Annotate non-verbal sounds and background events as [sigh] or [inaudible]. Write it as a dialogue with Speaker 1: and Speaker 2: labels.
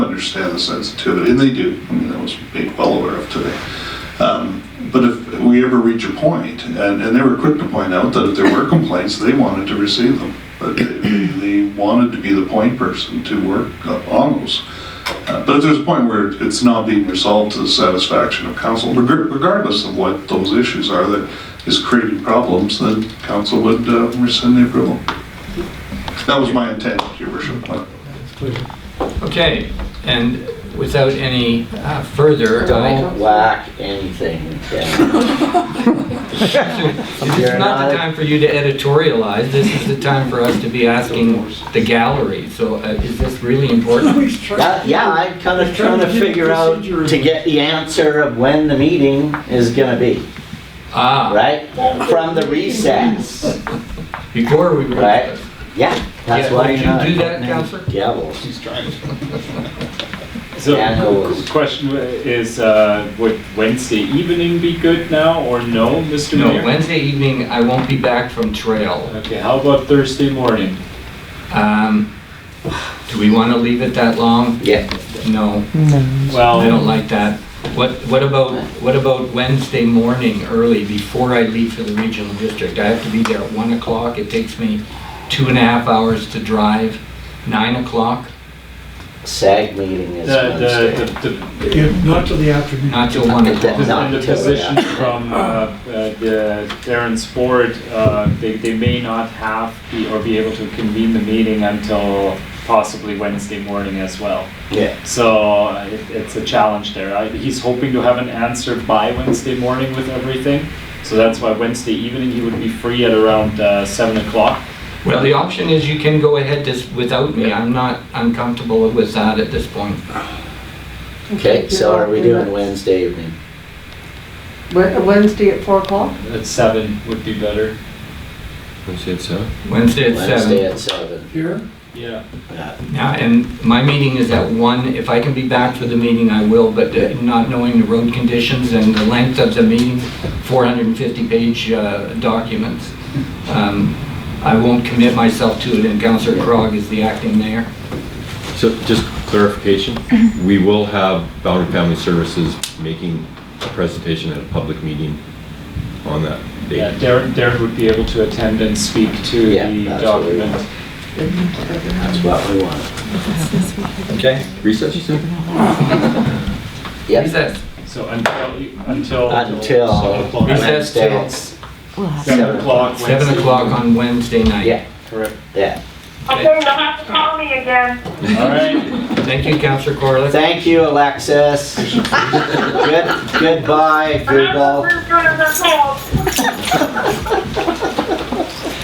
Speaker 1: understand the sensitivity, and they do, I mean, that was made well aware of today. Um, But if we ever reach a point, and, and they were quick to point out that if there were complaints, they wanted to receive them. But they- they, they wanted to be the point person to work up on those. Uh, But if there's a point where it's not being resolved to the satisfaction of council, regar- regardless of what those issues are that is creating problems, then council would uh, rescind the approval. That was my intent, your worship.
Speaker 2: Okay, and without any uh, further,
Speaker 3: Don't
Speaker 2: I-
Speaker 3: whack anything down.
Speaker 2: this is not the time for you to editorialize, this is the time for us to be asking the gallery, so uh, is this really
Speaker 4: [laughs]
Speaker 2: important?
Speaker 3: That- Yeah, I'm kind of trying to figure out to get the answer of when the meeting is gonna be,
Speaker 2: Ah,
Speaker 3: right? From the recess,
Speaker 2: before we...
Speaker 3: right? Yeah, that's
Speaker 2: Yeah,
Speaker 3: why
Speaker 2: would
Speaker 3: you're
Speaker 2: you
Speaker 3: not
Speaker 2: do that,
Speaker 3: putting in
Speaker 2: Counselor?
Speaker 3: Gavels.
Speaker 4: So,
Speaker 3: Yeah, no
Speaker 4: qu-
Speaker 3: worries.
Speaker 4: qu- question is, uh, would Wednesday evening be good now or no, Mr.
Speaker 2: No,
Speaker 4: Mayor?
Speaker 2: Wednesday evening, I won't be back from trail.
Speaker 4: Okay, how about Thursday morning?
Speaker 2: Um, Do we want to leave it that long?
Speaker 3: Yeah,
Speaker 2: No, I don't
Speaker 4: Well,
Speaker 2: like that. What, what about, what about Wednesday morning early, before I leave for the regional district? I have to be there at 1 o'clock, it takes me two and a half hours to drive, 9 o'clock,
Speaker 3: SAG meeting
Speaker 4: the,
Speaker 3: is
Speaker 4: the,
Speaker 3: Wednesday.
Speaker 4: the- the,
Speaker 5: Yeah, Not till the afternoon.
Speaker 2: not till 1
Speaker 3: Not
Speaker 2: o'clock.
Speaker 4: the, the
Speaker 3: till
Speaker 4: position
Speaker 3: that.
Speaker 4: from, uh, uh, the Darren's board, uh, they, they may not have be, or be able to convene the meeting until possibly Wednesday morning as well.
Speaker 3: Yeah,
Speaker 4: So uh, it, it's a challenge there. I, he's hoping to have an answer by Wednesday morning with everything. So that's why Wednesday evening he would be free at around uh, seven o'clock.
Speaker 2: Well, the option is you can go ahead this- without me, I'm not uncomfortable with that at this point.
Speaker 3: okay, so are we doing Wednesday evening?
Speaker 6: Wed- Wednesday at four o'clock?
Speaker 4: At seven would be better.
Speaker 2: Wednesday at 7.
Speaker 3: Wednesday at seven.
Speaker 5: Here,
Speaker 4: Yeah.
Speaker 3: Yeah.
Speaker 2: Yeah, and my meeting is at one. If I can be back for the meeting, I will, but uh, not knowing the road conditions and the length of the meeting, 450-page uh, documents, um, I won't commit myself to it, and Counselor Crog is the acting mayor.
Speaker 7: So just clarification, we will have Boundary Family Services making a presentation at a public meeting on that
Speaker 4: Yeah,
Speaker 7: date.
Speaker 4: Darren, Darren would be able to attend and speak to
Speaker 3: Yeah,
Speaker 4: the
Speaker 3: that's what we
Speaker 4: document.
Speaker 3: That's what we want.
Speaker 2: Okay.
Speaker 7: Recess, you said?
Speaker 3: Yep,
Speaker 2: Recess.
Speaker 4: So until, until.
Speaker 3: Until-
Speaker 4: Seven o'clock.
Speaker 2: Recess.
Speaker 3: Wednesday at s-
Speaker 4: Seven o'clock.
Speaker 2: Seven
Speaker 4: Wednesday.
Speaker 2: o'clock on Wednesday night.
Speaker 3: yeah,
Speaker 4: Correct.
Speaker 3: yeah.
Speaker 2: Okay.
Speaker 8: Okay, you'll have to call me again.
Speaker 4: All right.
Speaker 2: Thank you, Counselor Corliss.
Speaker 3: Thank you, Alexis. Good, goodbye,
Speaker 8: Remember,
Speaker 3: Google.
Speaker 8: we're doing this all.